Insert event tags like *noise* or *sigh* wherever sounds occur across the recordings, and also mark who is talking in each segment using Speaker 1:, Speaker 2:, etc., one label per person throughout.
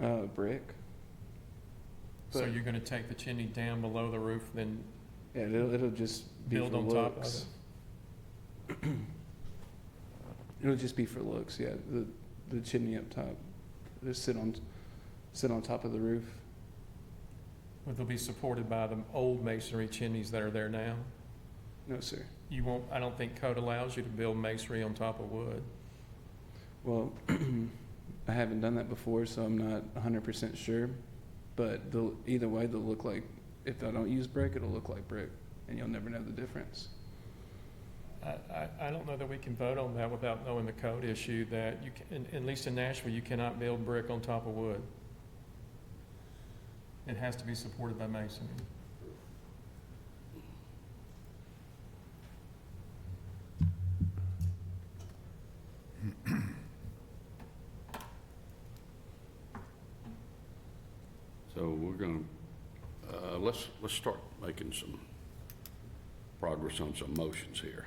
Speaker 1: uh,
Speaker 2: So
Speaker 1: But-
Speaker 2: you're gonna take the chimney down below the roof, then
Speaker 1: Yeah, it'll, it'll just be
Speaker 2: build
Speaker 1: for
Speaker 2: on top?
Speaker 1: looks. *clears throat* It'll just be for looks, yeah, the, the chimney up top, just sit on, sit on top of the roof.
Speaker 2: But they'll be supported by the old masonry chimneys that are there now?
Speaker 1: No, sir.
Speaker 2: You won't, I don't think code allows you to build masonry on top of wood.
Speaker 1: Well, *clears throat* I haven't done that before, so I'm not hundred percent sure, but they'll, either way, they'll look like, if I don't use brick, it'll look like brick, and you'll never know the difference.
Speaker 2: I, I, I don't know that we can vote on that without knowing the code issue that you can, at least in Nashville, you cannot build brick on top of wood. It has to be supported by masonry.
Speaker 3: So we're going to, let's, let's start making some progress on some motions here.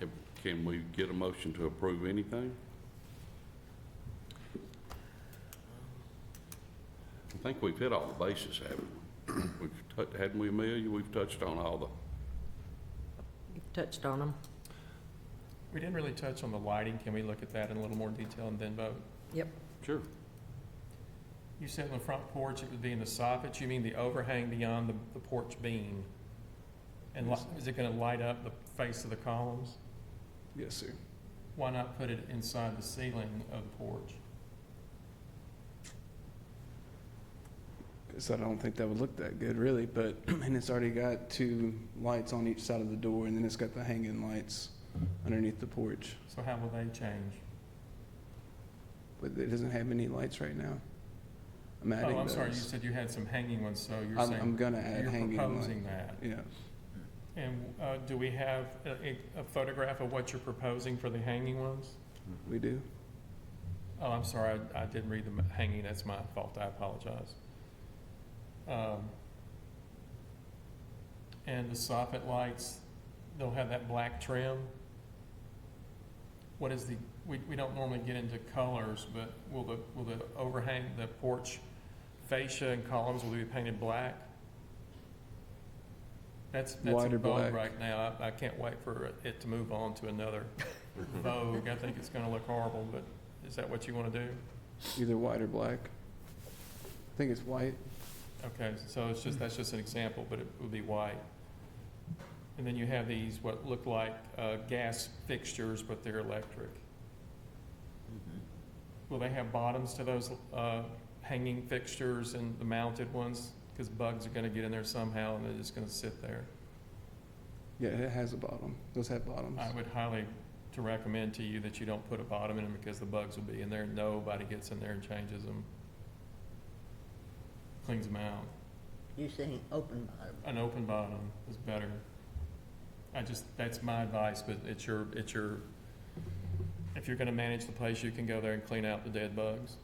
Speaker 3: If- Can we get a motion to approve anything? I think we've hit all the bases, haven't we? We've tou- Hadn't we, Amelia? We've touched on all the,
Speaker 4: You've touched on them.
Speaker 2: We didn't really touch on the lighting. Can we look at that in a little more detail and then vote?
Speaker 3: sure,
Speaker 2: You said on the front porch, it would be in the soffit, you mean the overhang beyond the, the porch beam? And li- is it gonna light up the face of the columns?
Speaker 1: Yes, sir.
Speaker 2: Why not put it inside the ceiling of the porch?
Speaker 1: So I don't think that would look that good, really. But *clears throat* and it's already got two lights on each side of the door, and then it's got the hanging lights underneath the porch.
Speaker 2: So how will they change?
Speaker 1: But it doesn't have any lights right now. I'm adding
Speaker 2: Oh, I'm
Speaker 1: those.
Speaker 2: sorry, you said you had some hanging ones, so you're
Speaker 1: I'm, I'm
Speaker 2: saying,
Speaker 1: gonna add
Speaker 2: you're
Speaker 1: hanging lights.
Speaker 2: proposing that.
Speaker 1: Yeah,
Speaker 2: And, uh, do we have a, a photograph of what you're proposing for the hanging ones?
Speaker 1: we do.
Speaker 2: Oh, I'm sorry, I, I didn't read the m- hanging, that's my fault, I apologize. Um, And the soffit lights, they'll have that black trim. What is the, we, we don't normally get into colors, but will the, will the overhang, the porch fascia and columns will be painted black? That's, that's
Speaker 1: Lighter
Speaker 2: in vogue
Speaker 1: black.
Speaker 2: right now, I, I can't wait for it to move on to another vogue, I think it's gonna look horrible, but is that what you want to do?
Speaker 1: Either white or black. I think it's white.
Speaker 2: Okay, so it's just, that's just an example, but it would be white. And then you have these, what look like uh, gas fixtures, but they're electric. Will they have bottoms to those uh, hanging fixtures and the mounted ones? Because bugs are going to get in there somehow, and they're just going to sit there.
Speaker 1: Yeah, it has a bottom. Those have bottoms.
Speaker 2: I would highly to recommend to you that you don't put a bottom in them, because the bugs will be in there, nobody gets in there and changes them. Cleans them out.
Speaker 4: You're saying open bottom.
Speaker 2: an open bottom is better. I just, that's my advice, but it's your, it's your, if you're gonna manage the place, you can go there and clean out the dead
Speaker 3: *laughs*
Speaker 2: bugs.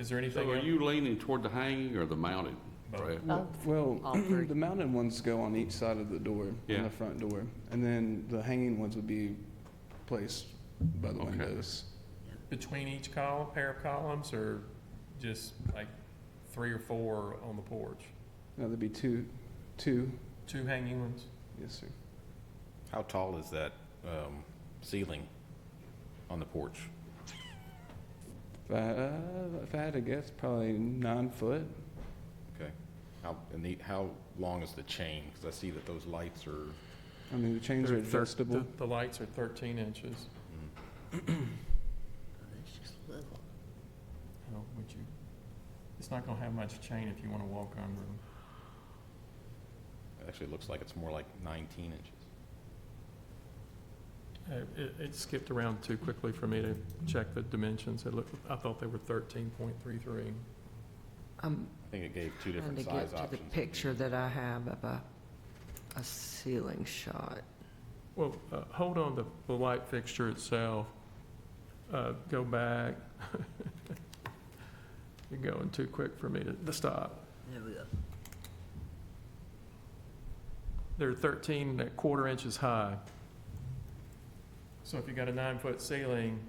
Speaker 2: Is there anything
Speaker 3: so are
Speaker 2: else?
Speaker 3: you leaning toward the hanging or the mounted, Brad?
Speaker 4: Oh.
Speaker 1: Well, *clears throat*
Speaker 4: All three.
Speaker 1: the mounted ones go on each side of the door,
Speaker 3: Yeah.
Speaker 1: on the front door, and then the hanging ones would be placed by the
Speaker 3: Okay.
Speaker 1: windows.
Speaker 2: Between each column, pair of columns, or just like three or four on the porch?
Speaker 1: No, there'd be two, two,
Speaker 2: Two hanging ones?
Speaker 1: yes, sir.
Speaker 5: How tall is that um, ceiling on the porch?
Speaker 1: If I, uh, if I had to guess, probably nine foot.
Speaker 5: Okay. How, and the, how long is the chain? Because I see that those lights are,
Speaker 1: I mean, the chains are
Speaker 2: They're thir-
Speaker 1: adjustable.
Speaker 2: The lights are thirteen inches.
Speaker 4: That's just little.
Speaker 2: How Oh, would you, it's not gonna have much chain if you wanna walk under them.
Speaker 5: it actually looks like it's more like 19 inches.
Speaker 2: Uh, It, it skipped around too quickly for me to check the dimensions. It looked, I thought they were thirteen point three three.
Speaker 6: I'm
Speaker 5: I think it gave two
Speaker 6: trying to
Speaker 5: different
Speaker 6: get
Speaker 5: size
Speaker 6: to the
Speaker 5: options.
Speaker 6: picture that I have of a, a ceiling shot.
Speaker 2: Well, uh, hold on to the light fixture itself. Uh, go back. *laughs* You're going too quick for me to, to stop.
Speaker 4: There we go.
Speaker 2: They're thirteen and a quarter inches high. So if you got a nine-foot ceiling,